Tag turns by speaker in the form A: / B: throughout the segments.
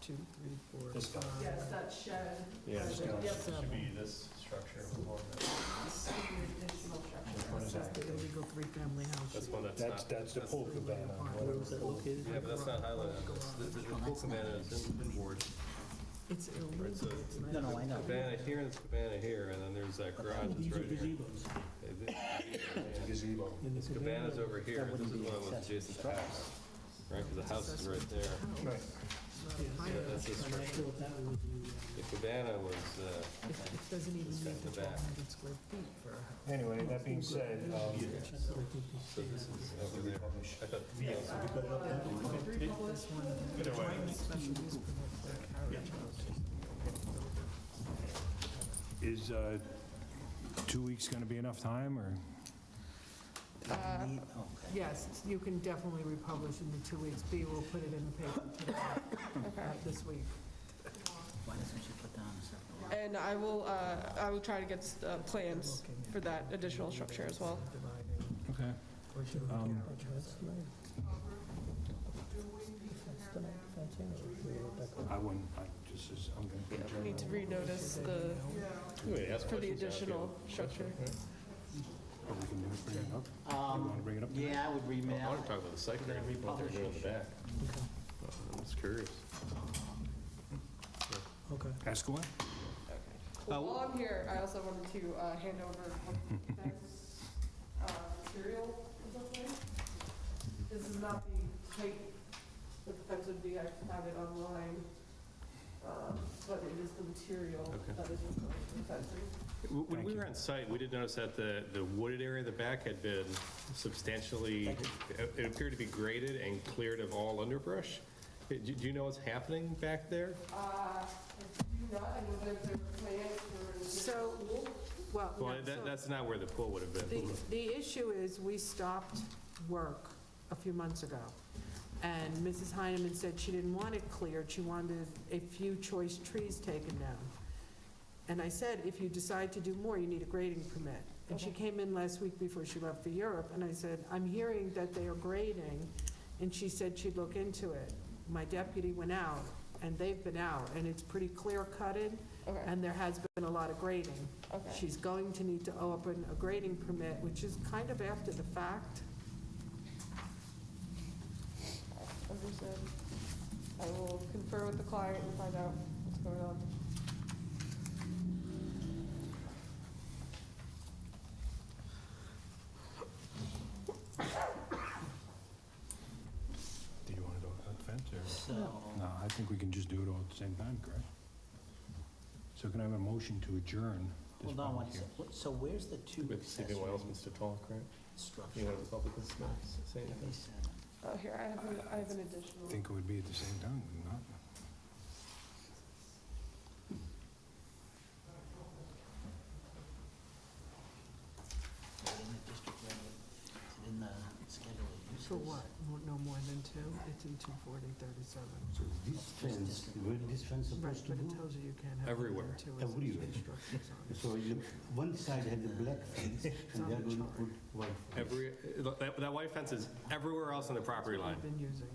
A: two, three, four,
B: This guy.
A: five.
C: Yes, that shed.
B: Yeah, this
A: Yep.
B: guy should be this structure. more than-
C: This additional structure.
B: Which one is
A: This is
B: that?
A: the illegal three-family house.
D: That's one that's
B: That's,
D: not,
B: that's the pool cabana.
A: Where was that located?
D: yeah, but that's not highlighted. That's- The the pool cabana is in board.
A: It's illegal.
D: It's a-
A: It's not-
E: No, no, I know.
D: Cabana here and this cabana here, and then there's that garage that's right here. Yeah,
B: Gazebo.
D: This cabana's over here,
E: That
D: this is
E: wouldn't be
D: one that was
E: accessory
D: adjacent to the house, right, because the house is right there.
A: Not
B: Right.
A: a
D: Yeah, that's
A: higher-
D: this
F: And I
D: structure.
F: thought that was the,
D: The cabana was, uh,
A: It it doesn't even
D: This guy
A: need
D: in
A: the
D: the back.
A: 1,200 square feet for a house.
B: Anyway, that being said, um,
F: so I think you
D: so
F: say
D: this
F: that.
D: is over there. I thought,
C: Yes, I have uh, three published.
A: This one,
B: Either way.
A: Joint special use permit for a carriage house.
B: is uh, two weeks going to be enough time, or?
E: Okay.
A: Yes, you can definitely republish in the two weeks. B will put it in the paper today, not this week.
E: Why doesn't she put down a separate?
G: And I will, uh, I will try to get s- uh, plans for that additional structure as well.
A: Dividing.
B: Okay.
A: Or should we
B: Um,
A: carriage house?
B: I wouldn't, I just, is- I'm going to.
G: Yeah, We need to renotice the,
D: wait, ask questions now,
G: for the
D: if you-
G: additional structure.
B: Or we can do it, bring it up. You want to
E: Um,
B: bring it up?
E: yeah, I would
D: I
E: remap.
D: want to talk about the site plan, what they're doing in the back. I'm just curious.
F: Okay.
B: Ask away.
G: Well, While I'm here, I also wanted to uh, hand over one fence, uh, material or something. This is not the height that the fence would be, I have it online, um, but it is the material
D: Okay.
G: that is required for the fencing.
D: When
B: Thank
D: we
B: you.
D: were on site, we did notice that the, the wooded area in the back had been substantially, it it appeared to be graded and cleared of all underbrush. Uh, Do do you know what's happening back there?
G: Uh, I do not, I know that there are plans for.
A: So, well,
G: Oh,
A: no,
D: Well,
A: so-
D: that, that's not where the pool would have
A: The,
D: been.
A: the issue is, we stopped work a few months ago, and Mrs. Heineman said she didn't want it cleared, she wanted a few choice trees taken down. And I said, if you decide to do more, you need a grading permit. And she came in last week before she left for Europe, and I said, I'm hearing that they are grading, and she said she'd look into it. My deputy went out, and they've been out, and it's pretty clear-cutted,
G: Okay,
A: and there has been a lot of grading. She's going to need to open a grading permit, which is kind of after the fact.
G: understood. I will confer with the client and find out what's going on.
B: Do you want to go up the fence,
E: So,
B: or? No, I think we can just do it all at the same time, correct? So can I have a motion to adjourn this
E: hold on
B: public
E: one
B: hearing?
E: second. So where's the two
D: With
E: accessory
D: Stephen Wiles, Mr. Tall, correct? You
E: structure?
D: want to public this say anything?
G: Oh, here, I have, an- I have an
B: I
G: additional.
B: think it would be at the same time, would it not?
E: In the schedule of uses.
A: For what? Mo- No more than two? It's in 24037.
H: So this fence, where this fence
A: Right,
H: supposed to
A: but it
H: go?
A: tells you you can't have more
D: Everywhere.
A: than two accessory
H: Everywhere.
A: structures on it.
H: So you, one side had the black fence, and
A: on
H: they are
A: the
H: going to
A: chart.
H: put white fence.
D: Every, that, that white fence is everywhere else on the property line.
A: We've been using.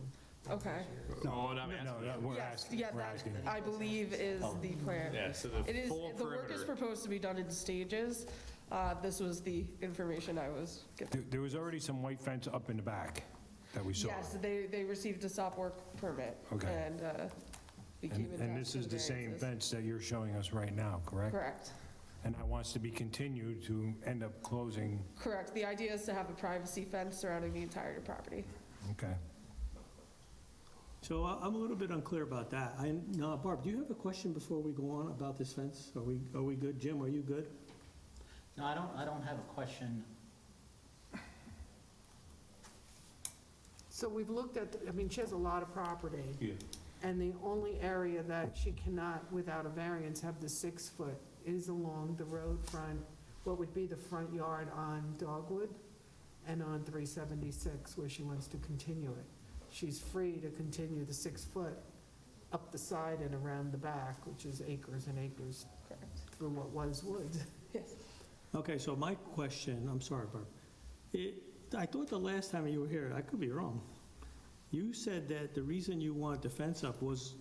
G: Okay.
D: No, I'm
B: No,
D: asking.
B: no, we're
G: Yes,
B: asking,
G: yeah,
B: we're
G: that,
B: asking.
G: I believe is the plan.
D: Yeah, so the
G: It is,
D: full
G: the work is
D: perimeter.
G: proposed to be done in stages. Uh, This was the information I was given.
B: There- There was already some white fence up in the back that we saw.
G: Yes, they, they received a stop work permit.
B: Okay.
G: And uh, we
B: And
G: came in.
B: and this is the same fence that you're showing us right now, correct?
G: Correct.
B: And that wants to be continued to end up closing,
G: Correct. The idea is to have a privacy fence surrounding the entire property.
B: okay.
F: So I- I'm a little bit unclear about that. I, now, Barb, do you have a question before we go on about this fence? Are we, are we good? Jim, are you good?
E: No, I don't, I don't have a question.
A: So we've looked at, I mean, she has a lot of property. And the only area that she cannot, without a variance, have the six foot is along the road front, what would be the front yard on Dogwood and on 376 where she wants to continue it. She's free to continue the six foot up the side and around the back, which is acres and acres
G: Correct.
A: through what was woods.
G: Yes.
F: Okay, so my question, I'm sorry, Barb. It, I thought the last time you were here, I could be wrong. You said that the reason you wanted the fence up was